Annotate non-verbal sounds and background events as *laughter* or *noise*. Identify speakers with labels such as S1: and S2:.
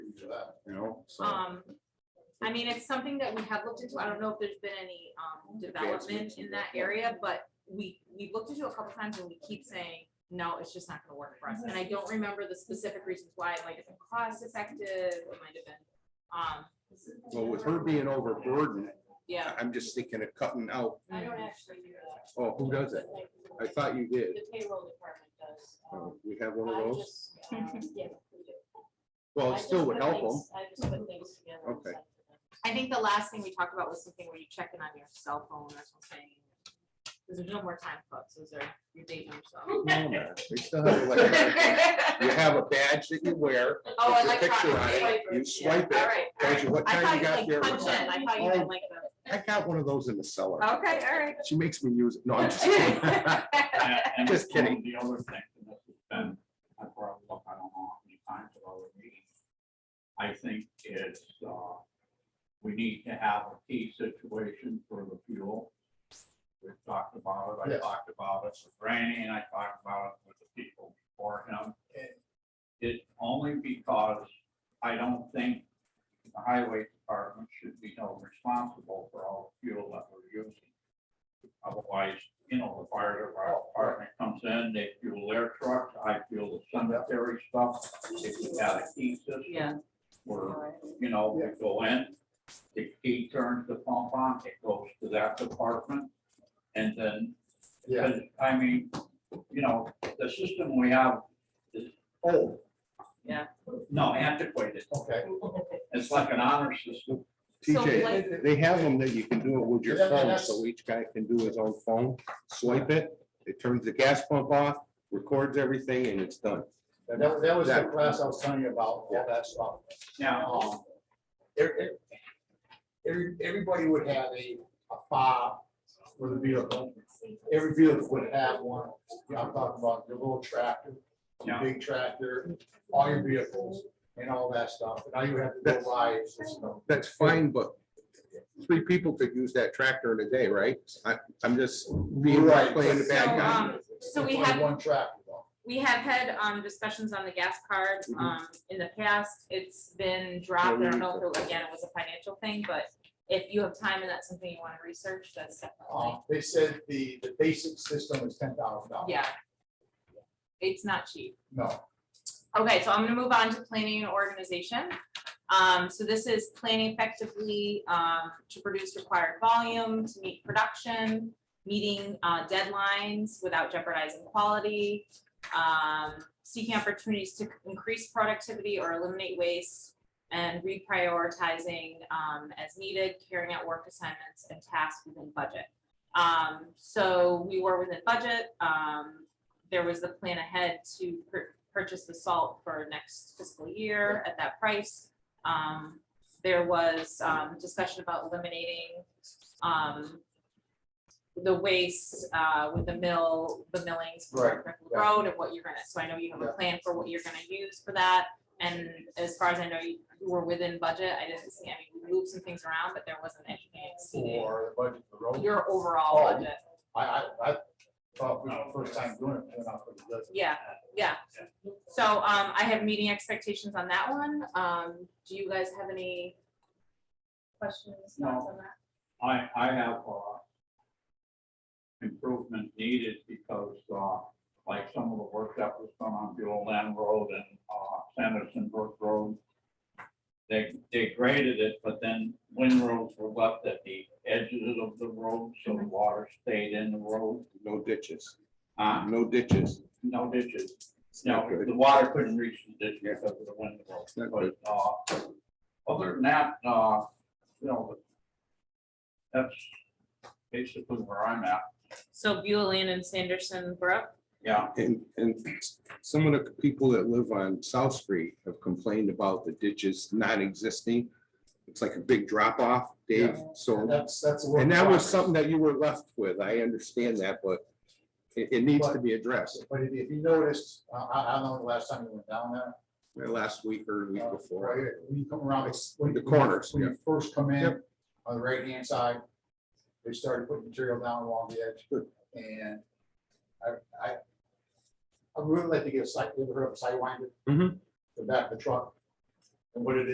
S1: for that, you know, so.
S2: Um, I mean, it's something that we have looked into. I don't know if there's been any, um, development in that area, but we, we've looked into it a couple times and we keep saying, no, it's just not gonna work for us. And I don't remember the specific reasons why. It might have been cost effective, it might have been, um,
S1: Well, with her being overburdened,
S2: yeah.
S1: I- I'm just thinking of cutting out,
S3: I don't actually do that.
S1: oh, who does it? I thought you did.
S3: The payroll department does.
S1: Oh,
S3: um,
S1: We have one of
S3: I
S1: those?
S3: just, um, yeah, we do.
S1: Well,
S3: I
S1: it still
S3: just
S1: would
S3: put
S1: help them.
S3: things- I just put things together. and
S1: Okay.
S3: send to them.
S2: I think the last thing we talked about was something where you check in on your cell phone or something. Cause there's no more time clocks, those are your dating *laughs* yourself.
S1: No, no, they still
S2: *laughs*
S1: have like- You have a badge that you wear,
S2: Oh,
S1: with your
S2: electronic
S1: picture on it,
S2: swiper.
S1: you swipe
S2: All
S1: it,
S2: right, all
S1: tells
S2: right.
S1: you what
S2: I
S1: time
S2: thought
S1: you
S2: you
S1: got there.
S2: like
S1: what
S2: punch in,
S1: time-
S2: I thought you meant like the.
S1: I got one of those in the cellar.
S2: Okay, all right.
S1: She makes me use it. No, I'm
S2: *laughs*
S1: just kidding.
S4: Yeah, and
S1: Just kidding.
S4: The other thing, and this has been, I brought it up, I don't know how many times at other meetings. I think it's, uh, we need to have a key situation for the fuel. We've talked about it, I
S1: Yes.
S4: talked about it with Randy, and I talked about it with the people before him. It's only because I don't think the highway department should be held responsible for all the fuel that we're using. Otherwise, you know, the fire department comes in, they fuel their trucks, I fuel the cemetery stuff. If you got a key
S2: Yeah.
S4: system, where, you know, we go in, the key turns the pump on, it goes to that department. And then,
S1: Yeah.
S4: I mean, you know, the system we have is old.
S2: Yeah.
S4: No, antiquated.
S5: Okay.
S4: It's like an honor system.
S2: So
S1: TJ,
S2: like-
S1: they have them that you can do it with your
S5: Yeah,
S1: phone,
S5: that's-
S1: so each guy can do his own phone, swipe it, it turns the gas pump off, records everything, and it's done.
S5: And that, that was the
S1: That-
S5: class I was telling you about, all that stuff.
S4: Now, um,
S5: Um, er- er- every- everybody would have a, a fob for the vehicle. Every vehicle would have one. You know, I'm talking about your little tractor, your
S4: Yeah.
S5: big tractor, all your vehicles and all that stuff. And now you have to go buy a system.
S1: That's fine, but three people could use that tractor in a day, right? I, I'm just being,
S5: Right.
S1: playing the bad guy.
S2: um, so we
S5: Only
S2: have-
S5: One tractor though.
S2: We have had, um, discussions on the gas card, um, in the past. It's been dropped. I don't know if, it- again, it was a financial thing, but if you have time and that's something you wanna research, that's definitely,
S5: Um, They said the, the basic system is ten thousand dollars.
S2: yeah. It's not cheap.
S5: No,
S2: Okay, so I'm gonna move on to planning and organization. Um, so this is planning effectively, um, to produce required volume, to meet production, meeting, uh, deadlines without jeopardizing quality, um, seeking opportunities to increase productivity or eliminate waste, and reprioritizing, um, as needed, carrying out work assignments and tasks within budget. Um, so we were within budget, um, there was the plan ahead to pur- purchase the salt for next fiscal year at that price. Um, there was, um, discussion about eliminating, um, the waste, uh, with the mill, the millings for
S5: Right,
S2: Brickell
S5: yeah.
S2: Road and what you're gonna, so I know you have a
S5: Yeah.
S2: plan for what you're gonna use for that. And as far as I know, you you were within budget, I didn't see, I mean, we moved some things around, but there wasn't anything exceeding
S5: for the budget for the road.
S2: your overall
S5: Oh.
S2: budget.
S5: I, I, I thought we were first time doing it, and I put it does.
S2: Yeah,
S4: um,
S2: yeah. So um, I have meeting expectations on that one. Um, do you guys have any questions, thoughts on that?
S4: I, I have, uh, improvement needed because, uh, like some of the work that was done on Buell Land Road and, uh, Sanderson Brook Road, they, they graded it, but then windrows were left at the edges of the road, so the water stayed in the road,
S1: No ditches,
S4: uh,
S1: no ditches.
S4: no ditches.
S1: It's
S4: No,
S1: not good.
S4: the water couldn't reach the ditch because of the windrow.
S1: It's not
S4: But, uh, other than that, uh, you know, that's basically where I'm at,
S2: So Beulah Land and Sanderson Brook,
S4: yeah.
S1: And, and some of the people that live on South Street have complained about the ditches not existing. It's like a big drop off, Dave,
S5: Yeah.
S1: so.
S5: And That's, that's. a work
S1: And
S5: in
S1: that was
S5: progress.
S1: something that you were left with. I understand that, but it, it needs to be addressed.
S5: But if if you noticed, I, I I don't know the last time you went down there.
S1: Last week or the week
S5: uh,
S1: before.
S5: right, When you come around, it's- when
S1: The
S5: you-
S1: corners,
S5: When
S1: yeah.
S5: you first come in,
S1: Yep.
S5: on the right hand side, they started putting material down along the edge.
S1: Good.
S5: And I, I, I would really like to get a site, you ever heard of a sidewinder?
S1: Mhm.
S5: The back of the truck, and what it